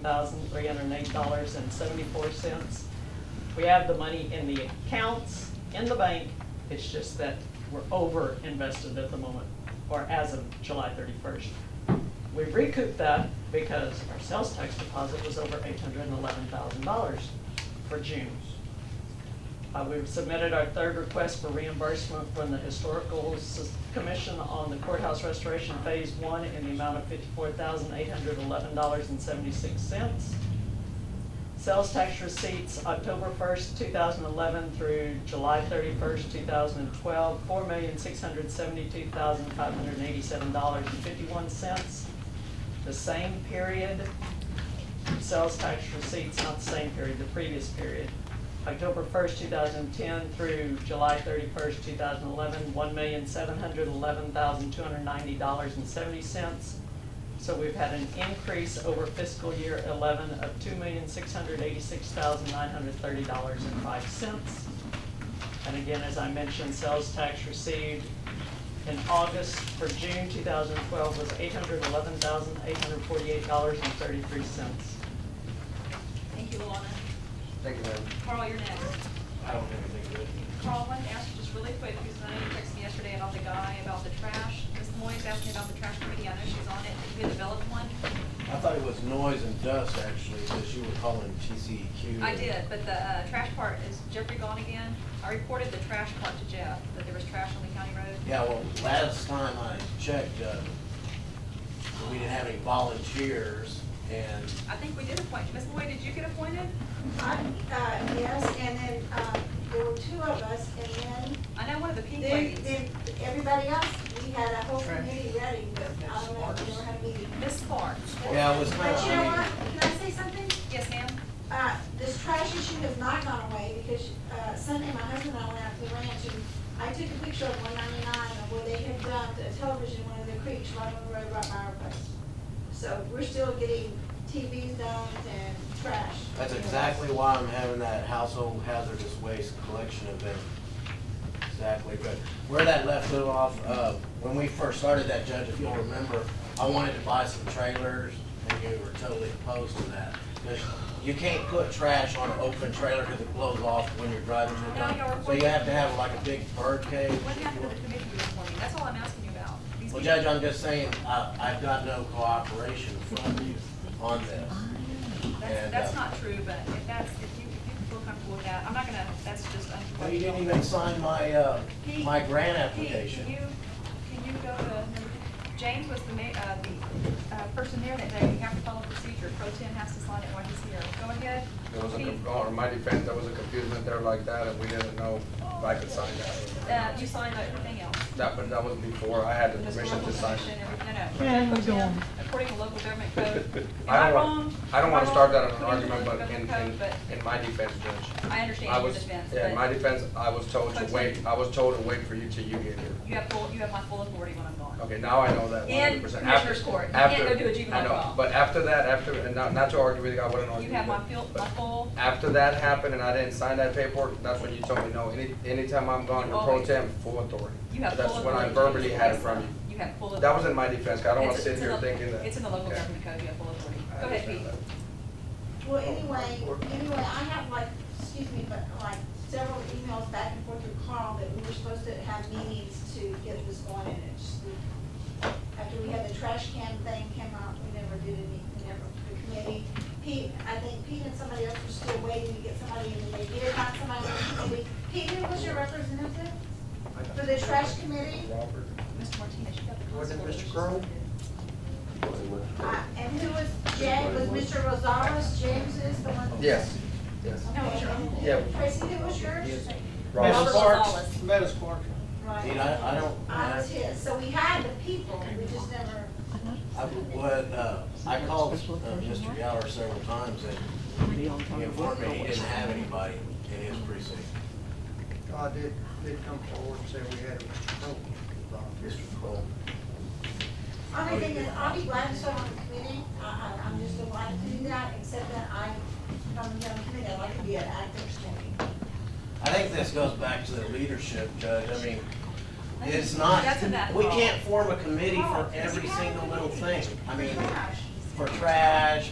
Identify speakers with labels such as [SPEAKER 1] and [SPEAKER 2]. [SPEAKER 1] thousand, three hundred and eight dollars and seventy-four cents. We have the money in the accounts, in the bank, it's just that we're over invested at the moment, or as of July thirty-first. We recouped that because our sales tax deposit was over eight hundred and eleven thousand dollars for June. Uh, we've submitted our third request for reimbursement from the Historical Sus- Commission on the courthouse restoration phase one in the amount of fifty-four thousand eight hundred eleven dollars and seventy-six cents. Sales tax receipts, October first, two thousand eleven through July thirty-first, two thousand and twelve, four million six hundred seventy-two thousand five hundred eighty-seven dollars and fifty-one cents. The same period, sales tax receipts, not the same period, the previous period. October first, two thousand and ten through July thirty-first, two thousand and eleven, one million seven hundred eleven thousand two hundred ninety dollars and seventy cents. So we've had an increase over fiscal year eleven of two million six hundred eighty-six thousand nine hundred thirty dollars and five cents. And again, as I mentioned, sales tax received in August for June two thousand twelve was eight hundred eleven thousand eight hundred forty-eight dollars and thirty-three cents.
[SPEAKER 2] Thank you, Luana.
[SPEAKER 3] Thank you, ma'am.
[SPEAKER 2] Carl, you're next.
[SPEAKER 4] I don't have anything good.
[SPEAKER 2] Carl, I wanted to ask you just really quick, because I know you texted me yesterday about the guy, about the trash. Ms. Moyes asked me about the trash committee, I know she's on it, you had developed one.
[SPEAKER 5] I thought it was noise and dust, actually, because you were calling E TCEQ.
[SPEAKER 2] I did, but the uh, trash part, is Jeffrey gone again? I reported the trash part to Jeff, that there was trash on the county road.
[SPEAKER 5] Yeah, well, last time I checked, uh, we didn't have any volunteers, and
[SPEAKER 2] I think we did appoint, Ms. Moy, did you get appointed?
[SPEAKER 6] I, uh, yes, and then, uh, there were two of us, and
[SPEAKER 2] I know one of the pink
[SPEAKER 6] then, they,
[SPEAKER 2] ladies.
[SPEAKER 6] they, everybody else, we had a whole committee ready, but I don't know, if we never had a meeting.
[SPEAKER 2] Ms. Sparks.
[SPEAKER 5] yeah, it was kind
[SPEAKER 6] But
[SPEAKER 5] of,
[SPEAKER 6] you know
[SPEAKER 5] I
[SPEAKER 6] what,
[SPEAKER 5] mean,
[SPEAKER 6] can I say something?
[SPEAKER 2] Yes, ma'am?
[SPEAKER 6] Uh, this trash issue has not gone away, because, uh, Sunday, my husband and I went out to the ranch, and I took a picture of one ninety-nine, of where they had dumped a television in one of the creeks right on the road right by our place. So we're still getting TVs dumped and trash.
[SPEAKER 5] that's exactly why I'm having that household hazardous waste collection event. Exactly, but where that left it off, uh, when we first started that, Judge, if you'll remember, I wanted to buy some trailers, and you were totally opposed to that. Because you can't put trash on an open trailer because it blows off when you're driving through
[SPEAKER 2] No, you're-
[SPEAKER 5] town. So you have to have like a big bird cage.
[SPEAKER 2] What happened to the committee you were appointing? That's all I'm asking you about. These
[SPEAKER 5] Well,
[SPEAKER 2] people-
[SPEAKER 5] Judge, I'm just saying, I, I've got no cooperation from you on this.
[SPEAKER 2] That's,
[SPEAKER 5] And,
[SPEAKER 2] that's
[SPEAKER 5] uh,
[SPEAKER 2] not true, but if that's, if you, if you feel comfortable with that, I'm not gonna, that's just.
[SPEAKER 5] Well, you didn't even sign my, uh,
[SPEAKER 2] Pete,
[SPEAKER 5] my grant
[SPEAKER 2] Pete,
[SPEAKER 5] application.
[SPEAKER 2] can you, can you go to, James was the ma, uh, the, uh, person there that day, we have to follow procedure, pro ten has to sign it while he's here, go ahead.
[SPEAKER 3] There was a,
[SPEAKER 2] Pete,
[SPEAKER 3] conf- on my defense, there was a confusion there like that, and we didn't know if I could sign
[SPEAKER 2] Uh,
[SPEAKER 3] that.
[SPEAKER 2] you signed everything else.
[SPEAKER 3] That, but that was before I had
[SPEAKER 2] The
[SPEAKER 3] the permission
[SPEAKER 2] historical
[SPEAKER 3] to sign.
[SPEAKER 2] commission, every- no, no.
[SPEAKER 1] Yeah,
[SPEAKER 2] Pro
[SPEAKER 1] we're
[SPEAKER 2] tem,
[SPEAKER 1] going.
[SPEAKER 2] According to local government code, am
[SPEAKER 3] I
[SPEAKER 2] I
[SPEAKER 3] don't
[SPEAKER 2] wrong?
[SPEAKER 3] want, I don't
[SPEAKER 2] Am
[SPEAKER 3] want to start that
[SPEAKER 2] wrong?
[SPEAKER 3] on an
[SPEAKER 2] According to
[SPEAKER 3] argument,
[SPEAKER 2] local
[SPEAKER 3] but in,
[SPEAKER 2] government code,
[SPEAKER 3] in, in my defense, Judge.
[SPEAKER 2] but I
[SPEAKER 3] I
[SPEAKER 2] understand your
[SPEAKER 3] was,
[SPEAKER 2] defense,
[SPEAKER 3] yeah, in
[SPEAKER 2] but-
[SPEAKER 3] my defense, I was told to
[SPEAKER 2] Protest.
[SPEAKER 3] wait, I was told to wait for you till you get here.
[SPEAKER 2] You have full, you have my full authority when I'm gone.
[SPEAKER 3] Okay, now I know that one
[SPEAKER 2] In
[SPEAKER 3] hundred percent.
[SPEAKER 2] Commissioner's Court. You can't go do a juvenile trial.
[SPEAKER 3] But after that, after, and not, not to argue with you, I wouldn't argue
[SPEAKER 2] You
[SPEAKER 3] with
[SPEAKER 2] have my
[SPEAKER 3] you,
[SPEAKER 2] full,
[SPEAKER 3] but
[SPEAKER 2] my full,
[SPEAKER 3] After that happened and I didn't sign that paperwork, that's when you told me, no, any, anytime I'm gone, you're pro
[SPEAKER 2] Always.
[SPEAKER 3] tem, full authority.
[SPEAKER 2] you have full
[SPEAKER 3] That's
[SPEAKER 2] authority.
[SPEAKER 3] when I
[SPEAKER 2] to
[SPEAKER 3] verbally
[SPEAKER 2] do
[SPEAKER 3] had it
[SPEAKER 2] this.
[SPEAKER 3] from you.
[SPEAKER 2] You have full authority.
[SPEAKER 3] That was in my defense, 'cause I don't want to
[SPEAKER 2] It's-
[SPEAKER 3] sit
[SPEAKER 2] it's in
[SPEAKER 3] here
[SPEAKER 2] the-
[SPEAKER 3] thinking that.
[SPEAKER 2] It's in the local
[SPEAKER 3] Okay.
[SPEAKER 2] government code, you have full authority. Go
[SPEAKER 3] I
[SPEAKER 2] ahead,
[SPEAKER 3] understand
[SPEAKER 2] Pete.
[SPEAKER 6] Well, anyway, anyway, I have like, excuse me, but like several emails back and forth with Carl that we were supposed to have meetings to get this going and it's, just- after we had the trash can thing came out, we never did any, we never, the committee. Pete, I think Pete and somebody else were still waiting to get somebody in the committee, not somebody in the committee. Pete, who was your representative for the trash committee?
[SPEAKER 3] Robert.
[SPEAKER 2] Mr. Martinez, you got the.
[SPEAKER 4] Was it
[SPEAKER 2] constable,
[SPEAKER 4] Mr.
[SPEAKER 2] which is
[SPEAKER 4] Crowe?
[SPEAKER 2] suspended.
[SPEAKER 6] Uh, and who was Jay, was Mr. Rosales, James is the one?
[SPEAKER 3] Yes, yes.
[SPEAKER 2] No, it's your uncle.
[SPEAKER 3] Yeah.
[SPEAKER 6] Tracy, who was yours?
[SPEAKER 2] Robert
[SPEAKER 5] Mrs. Parks,
[SPEAKER 2] Gonzalez.
[SPEAKER 5] Mrs. Parks.
[SPEAKER 6] Right.
[SPEAKER 5] Dude, I- I don't-
[SPEAKER 6] I was his, Uh, so we had the people, we just never.
[SPEAKER 5] I would, uh, I called uh, Mr. Gower several times and he informed me he didn't have anybody in his precinct.
[SPEAKER 7] I did, did come forward and say we had a Mr. Crowe.
[SPEAKER 5] Mr. Cole.
[SPEAKER 6] Only thing is, I'll be glad to serve on the committee, I, I, I'm just delighted to do that, except that I, if I'm on the committee, I'd like to be an active committee.
[SPEAKER 5] I think this goes back to the leadership, Judge. I mean, it's not,
[SPEAKER 2] That's enough.
[SPEAKER 5] we can't form a committee for every single little thing. I mean, for trash,